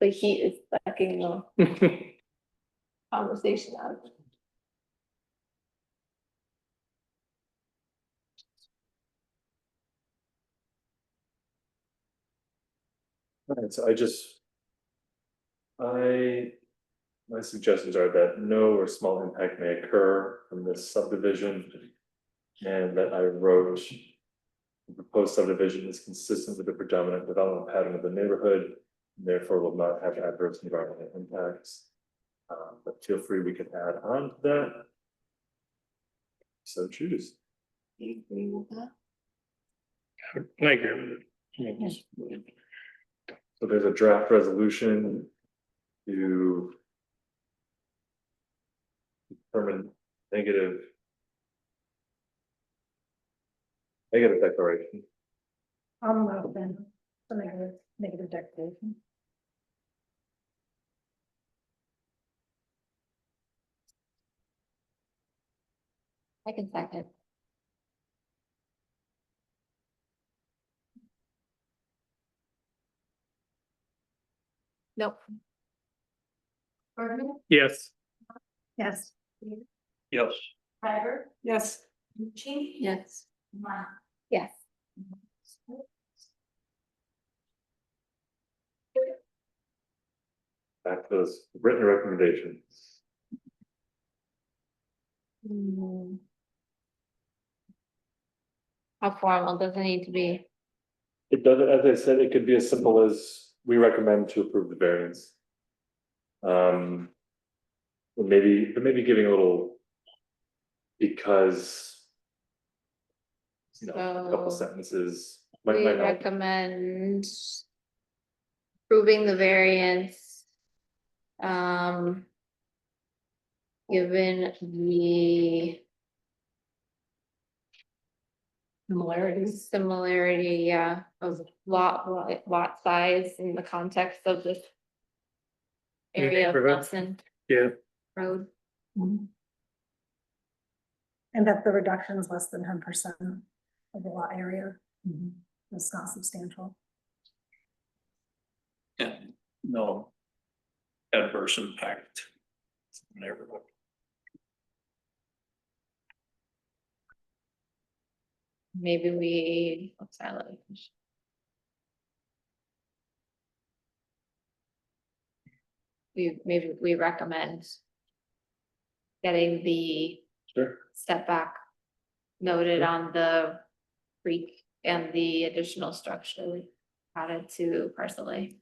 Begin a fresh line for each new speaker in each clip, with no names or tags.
The heat is sucking the conversation out. of it.
Alright, so I just. I, my suggestions are that no or small impact may occur from this subdivision. And that I wrote. "The Proposed subdivision is consistent with the predominant development pattern of the neighborhood, and therefore will not have adverse environmental impacts. Uh, but feel free, we can add on to that. So choose.
Do you agree with that?
I agree with
Yes.
it.
So there's a draft resolution to. Determine negative. Negative declaration,
I'm allowed then, a negative, negative declaration.
I can second. Nope. Bergman,
Yes.
Yes.
Yes.
Driver? Yes.
Yes. Yes.
back to those written recommendations.
Hmm. How formal does it need to be?
It does, as I said, it could be as simple as we recommend to approve the variance. Um. or Maybe, but maybe giving a little. Because. You know, a couple
So-
sentences. might-
We
might not-
recommend approving the variance. Um. Given the
Similarities.
similarity, yeah, of lot, lot- lot size in the context of this.
Your
Area of
neighborhood.
Nelson
Yeah,
Road,
And Mm-hmm. that the reduction is less than ten percent of the lot area. It's not substantial.
And no adverse impact. on Everyone.
maybe we, what's that language? We, maybe we recommend. Getting the
Sure.
setback noted on the creek and the additional structure added to parcel A.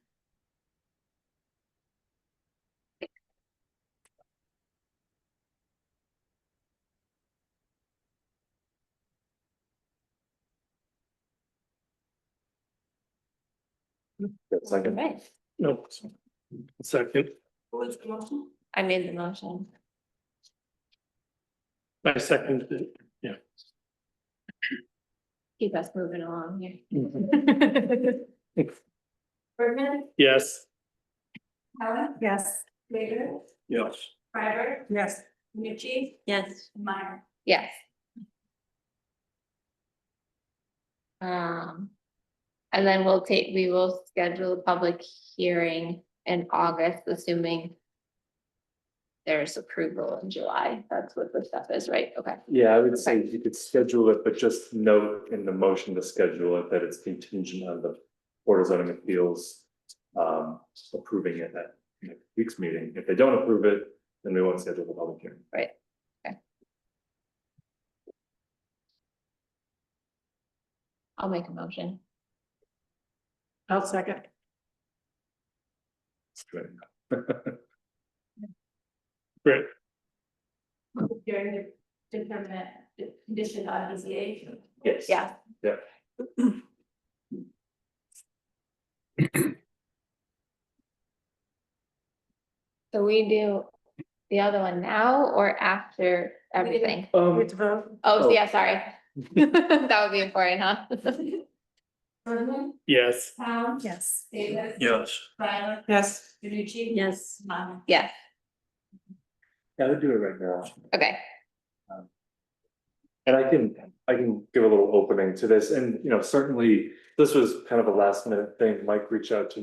That's like a-
Right,
no. Second,
I made the motion.
I second it.
Keep us moving along here.
Bergman,
Yes,
Helen,
Yes.
Baker,
Yes.
Freiberg,
Yes.
Nucci,
Yes.
Meyer.
Yes. Um, and then we'll take, we will schedule a public hearing in August, assuming there's approval in July. That's what the stuff is, right? Okay.
Yeah, I would say you could schedule it, but just note in the motion to schedule it that it's contingent on the Board of Zoning Appeals. Um, approving it at next week's meeting. If they don't approve it, then we won't schedule the public hearing.
I'll make a motion.
I'll second.
It's good.
great.
During the determinant, the condition on BZA.
Yes.
Yeah. So we do the other one now or after everything?
Um,
vote.
Oh,
Oh.
yeah, sorry. That would be important, huh?
Bergman,
Yes,
Tom.
Yes.
Davis.
Yes.
Freiberg,
Yes.
Nucci.
Yes.
Meyer.
Yes,
I would do it right now.
okay.
And I can, I can give a little opening to this and, you know, certainly this was kind of a last minute thing. Mike reached out to